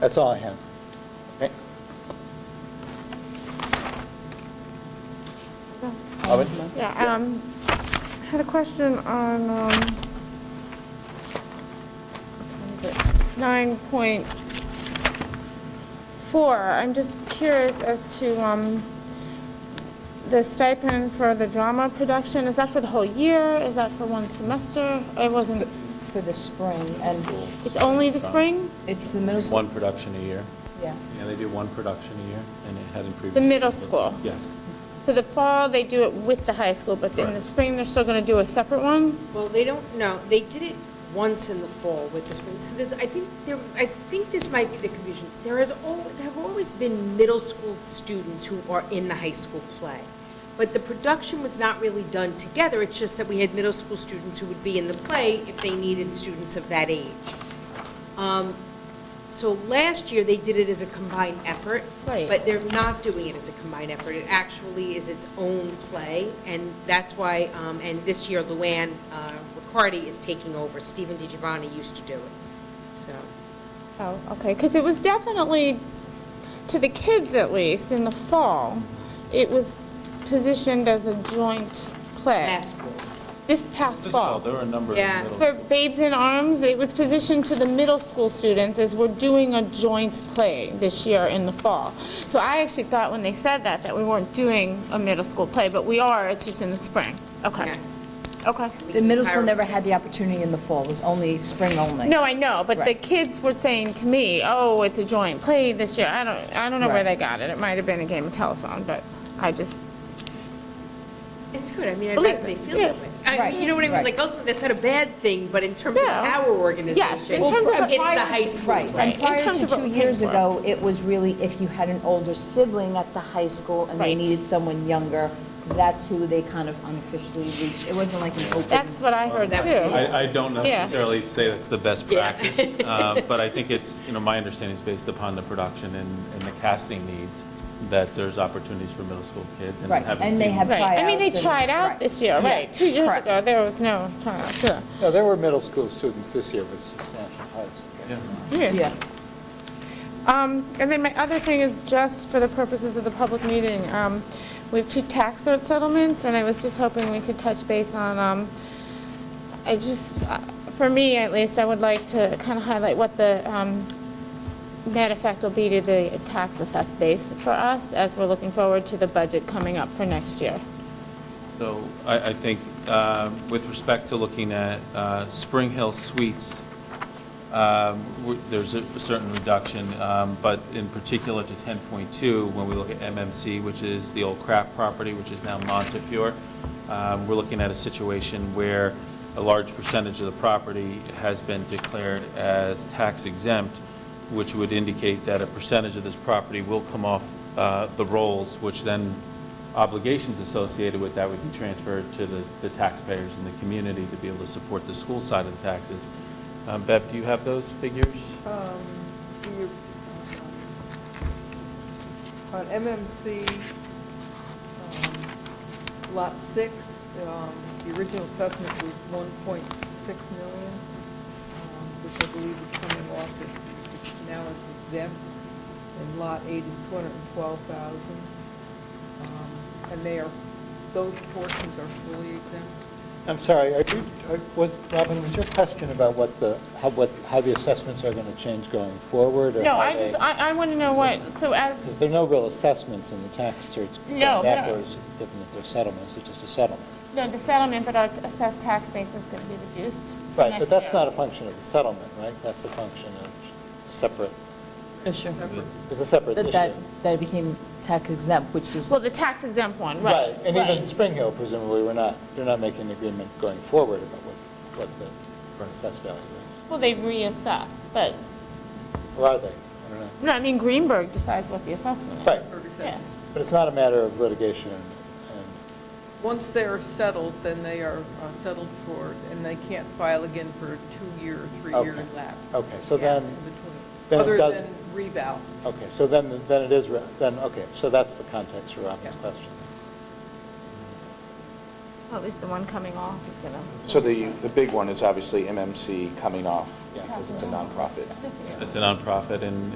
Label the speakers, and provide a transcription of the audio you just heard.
Speaker 1: That's all I have. Okay. Robin?
Speaker 2: Yeah, um, I had a question on, um, nine point four, I'm just curious as to, um, the stipend for the drama production, is that for the whole year, is that for one semester? It wasn't,
Speaker 3: for the spring, and
Speaker 2: it's only the spring?
Speaker 3: it's the middle school,
Speaker 4: One production a year.
Speaker 3: yeah.
Speaker 4: Yeah, they do one production a year, and it hadn't
Speaker 2: The
Speaker 4: previously.
Speaker 2: middle school?
Speaker 4: Yeah.
Speaker 2: So the fall, they do it with the high school, but in the
Speaker 4: Correct.
Speaker 2: spring, they're still gonna do a separate one?
Speaker 5: Well, they don't, no, they did it once in the fall with the spring. So there's, I think, there, I think this might be the confusion. There has al, there have always been middle school students who are in the high school play. But the production was not really done together, it's just that we had middle school students who would be in the play if they needed students of that age. Um, So last year, they did it as a combined effort.
Speaker 2: Right.
Speaker 5: But they're not doing it as a combined effort. It actually is its own play, and that's why, um, and this year, Luann uh, Riccardi is taking over. Stephen DiGiovanni used to do it, so.
Speaker 2: Oh, okay, because it was definitely, to the kids at least, in the fall, it was positioned as a joint play.
Speaker 5: Last fall.
Speaker 2: This past
Speaker 4: This
Speaker 2: fall.
Speaker 4: fall, there were a number of
Speaker 5: Yeah.
Speaker 4: middle
Speaker 2: For
Speaker 4: school.
Speaker 2: Babes in Arms, it was positioned to the middle school students as we're doing a joint play this year in the fall. So I actually thought when they said that, that we weren't doing a middle school play, but we are, it's just in the spring. Okay,
Speaker 5: Yes.
Speaker 2: okay.
Speaker 3: The middle school never had the opportunity in the fall, it was only spring only.
Speaker 2: No, I know, but the
Speaker 3: Right.
Speaker 2: kids were saying to me, oh, it's a joint play this year. I don't, I don't know where they
Speaker 3: Right.
Speaker 2: got it. It might have been a game of telephone, but I just,
Speaker 5: It's good, I mean, I'd
Speaker 2: Believe
Speaker 5: rather they
Speaker 2: it,
Speaker 5: feel
Speaker 2: yeah.
Speaker 5: that way. I
Speaker 3: Right,
Speaker 5: mean, you know what I mean,
Speaker 3: right.
Speaker 5: like, ultimately, that's not a bad thing, but in terms of
Speaker 2: Yeah.
Speaker 5: our organization,
Speaker 2: Yes,
Speaker 5: it's
Speaker 2: in
Speaker 5: the
Speaker 2: terms of
Speaker 5: high school
Speaker 3: Right,
Speaker 2: Right,
Speaker 5: play.
Speaker 3: and
Speaker 2: in
Speaker 3: prior
Speaker 2: terms
Speaker 3: to
Speaker 2: of what
Speaker 3: two
Speaker 2: we
Speaker 3: years
Speaker 2: paid for.
Speaker 3: ago, it was really if you had an older sibling at the high school and they
Speaker 2: Right.
Speaker 3: needed someone younger, that's who they kind of unofficially reached. It wasn't like an open.
Speaker 2: that's what I heard too.
Speaker 4: I, I don't
Speaker 2: Yeah.
Speaker 4: necessarily say that's the best practice, uh, but I think it's, you know, my understanding is based upon the production and, and the casting needs, that there's opportunities for middle school kids, and I
Speaker 3: Right,
Speaker 4: haven't
Speaker 3: and they
Speaker 4: seen-
Speaker 3: have
Speaker 2: Right, I mean, they
Speaker 3: tryouts and-
Speaker 2: tried out
Speaker 3: right.
Speaker 2: this year,
Speaker 3: Yeah,
Speaker 2: right. Two years
Speaker 3: correct.
Speaker 2: ago, there was no tryouts, yeah.
Speaker 1: No, there were middle school students this year with substantial parts.
Speaker 4: Yeah.
Speaker 3: Yeah,
Speaker 2: Um, And then my other thing is just for the purposes of the public meeting, um, we have two tax cert settlements, and I was just hoping we could touch base on, um, I just, uh, for me at least, I would like to kind of highlight what the um, net effect will be to the tax assessed base for us as we're looking forward to the budget coming up for next year.
Speaker 4: So I, I think uh, with respect to looking at uh, Spring Hill Suites, um, w- there's a certain reduction, um, but in particular to 10.2, when we look at MMC, which is the old Kraft property, which is now Montefiore, um, we're looking at a situation where a large percentage of the property has been declared as tax exempt, which would indicate that a percentage of this property will come off uh, the rolls, which then obligations associated with that would be transferred to the the taxpayers in the community to be able to support the school side of the taxes. Um, Bev, do you have those figures?
Speaker 6: On MMC, um, Lot 6, um, the original assessment was 1.6 million, um, which I believe is coming off, as- it's now is exempt, and Lot 8 is 212,000. Um, And they are, those portions are fully exempt.
Speaker 1: I'm sorry, are you, are- was, Robin, was your question about what the, how, what, how the assessments are going to change going forward? or
Speaker 2: No,
Speaker 1: how
Speaker 2: I just,
Speaker 1: they-
Speaker 2: I, I want to know what, so as,
Speaker 1: Because there are no real assessments in the tax certs. going
Speaker 2: No, but I-
Speaker 1: Backwards, given that they're settlements, it's just a settlement.
Speaker 2: no, the settlement, but our assessed tax base is going to be reduced
Speaker 1: Right, but
Speaker 2: next
Speaker 1: that's
Speaker 2: year.
Speaker 1: not a function of the settlement, right? That's a function of a separate,
Speaker 3: issue.
Speaker 1: it's a separate issue.
Speaker 3: But that, that became tax exempt, which was,
Speaker 2: Well, the tax exempt one, right.
Speaker 1: Right, and even Spring Hill presumably, we're not, they're not making an agreement going forward about what, what the assessed value is.
Speaker 2: Well, they reassess, but,
Speaker 1: Or are they? I don't know.
Speaker 2: no, I mean, Greenberg decides what the assessment is.
Speaker 1: Right,
Speaker 6: or
Speaker 2: Yeah.
Speaker 6: exempt.
Speaker 1: but it's not a matter of litigation and- and
Speaker 6: Once they are settled, then they are uh, settled for, and they can't file again for a two-year or three-year
Speaker 1: Okay.
Speaker 6: lap.
Speaker 1: Okay, so
Speaker 6: Yeah,
Speaker 1: then,
Speaker 6: in between.
Speaker 1: then it does-
Speaker 6: Other than revow.
Speaker 1: okay, so then, then it is, re- then, okay, so that's the context for Robin's
Speaker 6: Yeah.
Speaker 1: question.
Speaker 2: Well, At least the one coming off is gonna.
Speaker 7: So the, the big one is obviously MMC coming off
Speaker 1: Yeah.
Speaker 7: because it's a nonprofit.
Speaker 4: It's a nonprofit, and